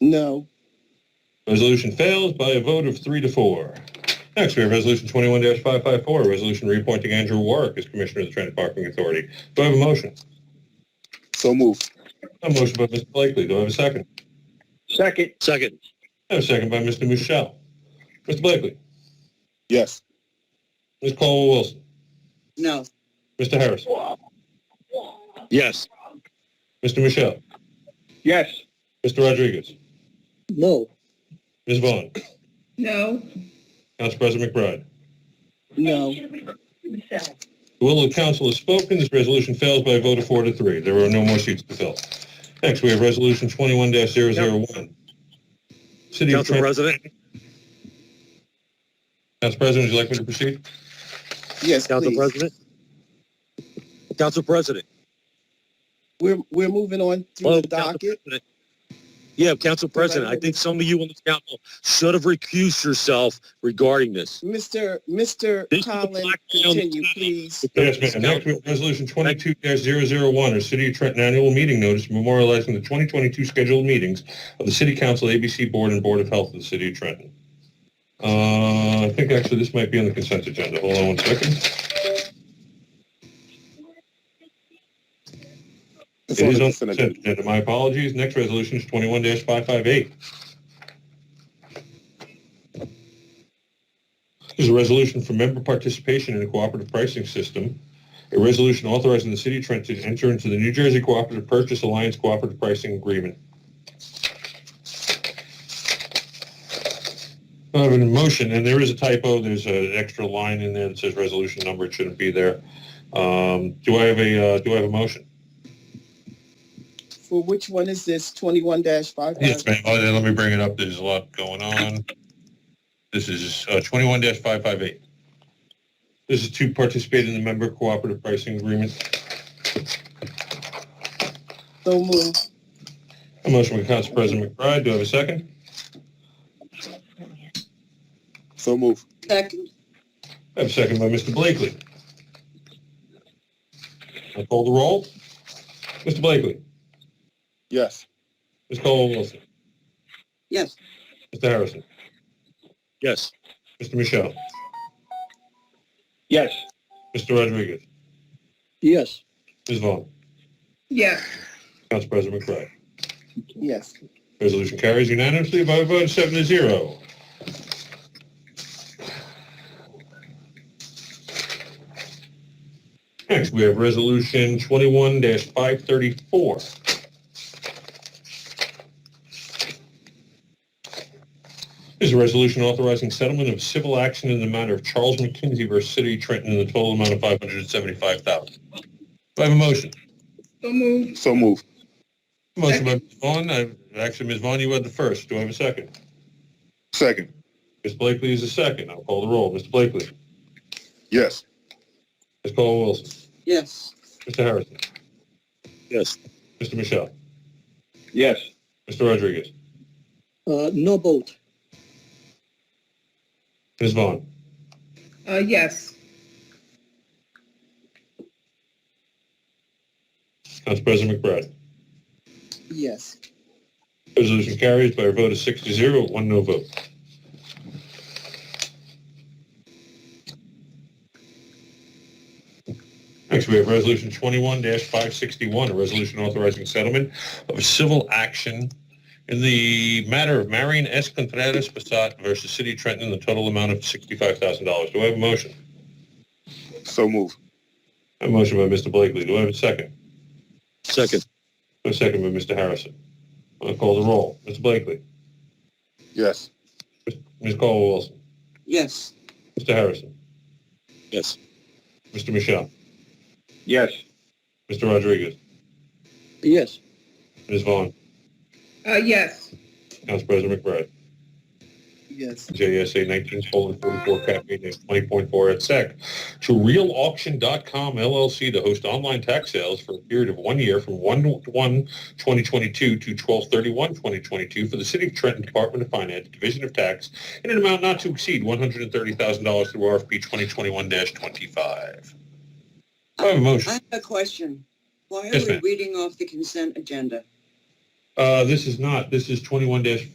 No. Resolution fails by a vote of three to four. Next, we have Resolution 21-554, a resolution reappointing Andrew Warwick as Commissioner of the Transit Parking Authority. Do I have a motion? So move. A motion by Mr. Blakely. Do I have a second? Second. Second. I have a second by Mr. Michelle. Mr. Blakely. Yes. Ms. Colwell Wilson. No. Mr. Harris. Yes. Mr. Michelle. Yes. Mr. Rodriguez. No. Ms. Vaughn. No. Council President McBride. No. The will of the council is spoken. This resolution fails by a vote of four to three. There are no more seats to fill. Next, we have Resolution 21-001. City of Council Trent. President, Council President, would you like me to proceed? Yes, Council please. President. Council President. We're, we're moving on Oh, through the Council docket. President. Yeah, Council President, I think some of you on this council should have recused yourself regarding this. Mr. Mr. This is the Collins, black man. continue, please. Yes, ma'am. Next, we have Resolution 22-001, our City of Trenton Annual Meeting Notice memorializing the 2022 scheduled meetings of the City Council, ABC Board, and Board of Health of the City of Trenton. Uh, I think actually this might be on the consent agenda. Hold on one second. It It's on is the on the consent agenda. consent agenda. My apologies. Next resolution is 21-558. This is a resolution for member participation in a cooperative pricing system. A resolution authorizing the City of Trenton to enter into the New Jersey Cooperative Purchase Alliance Cooperative Pricing Agreement. I have a motion, and there is a typo. There's an extra line in there that says resolution number. It shouldn't be there. Um, Do I have a, uh, do I have a motion? For which one is this? Twenty-one dash five? Yes, ma'am. Oh, then let me bring it up. There's a lot going on. This is uh, twenty-one five five eight. This is to participate in the member cooperative pricing agreement. So move. A motion by Council President McBride. Do I have a second? So move. Second. I have a second by Mr. Blakely. I'll call the roll. Mr. Blakely. Yes. Ms. Colwell Wilson. Yes. Mr. Harrison. Yes. Mr. Michelle. Yes. Mr. Rodriguez. Yes. Ms. Vaughn. Yes. Council President McBride. Yes. Resolution carries unanimously by a vote of seven to zero. Next, we have Resolution 21-534. This is a resolution authorizing settlement of civil action in the matter of Charles McKinsey versus City of Trenton in the total amount of 575000 Do I have a motion? So moved. So move. Motion by Ms. Vaughn. I- Actually, Ms. Vaughn, you had the first. Do I have a second? Second. Ms. Blakely is the second. I'll call the roll. Mr. Blakely. Yes. Ms. Colwell Wilson. Yes. Mr. Harrison. Yes. Mr. Michelle. Yes. Mr. Rodriguez. Uh, no vote. Ms. Vaughn. Uh, yes. Council President McBride. Yes. Resolution carries by a vote of six to zero, one no vote. Next, we have Resolution 21-561, a resolution authorizing settlement of civil action in the matter of Marion S. Contreras Passat versus City of Trenton in the total amount of $65,000. Do I have a motion? So move. A motion by Mr. Blakely. Do I have a second? Second. A second by Mr. Harrison. I'll call the roll. Mr. Blakely. Yes. Ms. Colwell Wilson. Yes. Mr. Harrison. Yes. Mr. Michelle. Yes. Mr. Rodriguez. Yes. Ms. Vaughn. Uh, yes. Council President McBride. Yes. JSA 19 colon 44 cap maintenance 20.4 at SEC to realauction.com LLC to host online tax sales for a period of one year from 1-1-2022 to 12-31-2022 for the City of Trenton Department of Finance, Division of Tax, in an amount not to exceed $130,000 through RFP 2021-25. I have a I motion. have a question. Why Yes, are we ma'am. reading off the consent agenda? Uh, this is not, this is twenty-one dash